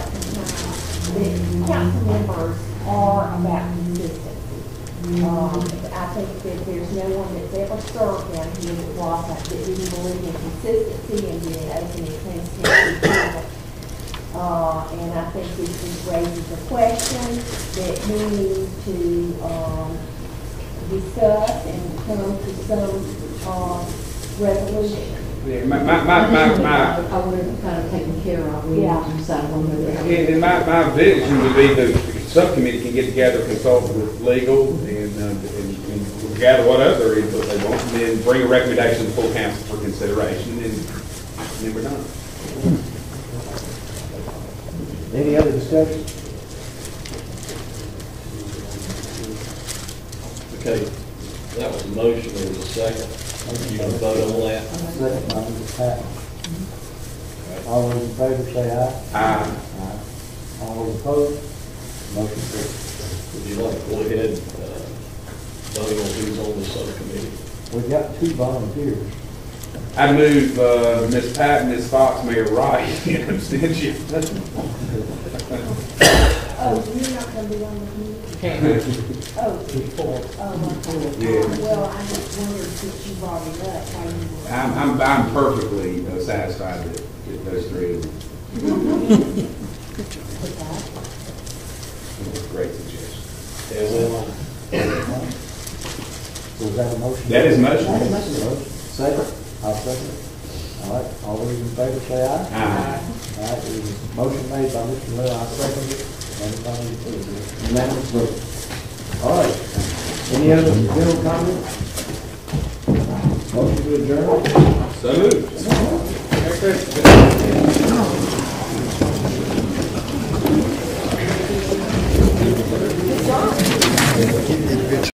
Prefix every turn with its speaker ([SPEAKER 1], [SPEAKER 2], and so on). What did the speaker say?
[SPEAKER 1] the council members are about consistency. Um, I think that there's no one that's ever served down here that wasn't, that didn't believe in consistency and being open and transparent. with people. Uh, and I think this just raises a question that we need to, um, discuss and come to some, uh, resolution.
[SPEAKER 2] Yeah, my, my, my, my, my,
[SPEAKER 3] I would have kind of taken care of, we
[SPEAKER 1] Yeah.
[SPEAKER 3] decided one way or the
[SPEAKER 2] and and my, my vision would be that the subcommittee can get together, consult with legal and, uh, and and gather what other input they want, and then bring a recommendation to full council for consideration, and then we're done.
[SPEAKER 4] Any other discussion?
[SPEAKER 5] Okay, that was a motion, there was a second. You gonna vote on that?
[SPEAKER 4] Second by Mrs. Patton. All those in favor say aye.
[SPEAKER 2] Aye.
[SPEAKER 4] Aye. All those opposed? Motion carries.
[SPEAKER 5] Would you like to go ahead and uh, vote on who's on the subcommittee?
[SPEAKER 4] We've got two volunteers.
[SPEAKER 2] I move, uh, Ms. Patton, Ms. Fox, Mayor Wright, in abstention.
[SPEAKER 1] Oh, you're not gonna be on the committee? Oh, oh,
[SPEAKER 2] Yeah.
[SPEAKER 1] uh, well, I just wondered since you brought it up, how you were.
[SPEAKER 2] I'm, I'm, I'm perfectly uh, satisfied with, with those three. Great suggestion.
[SPEAKER 5] And then,
[SPEAKER 4] So is that a motion?
[SPEAKER 2] That is motion.
[SPEAKER 4] That is motion. Second, I'll second it. All right, all those in favor say aye.
[SPEAKER 2] Aye.
[SPEAKER 4] All right, it was motion made by Mr. Miller, I second it. Everybody approves it. Unanimous vote. All right, any other general comments? Motion to adjourn?
[SPEAKER 2] So moved.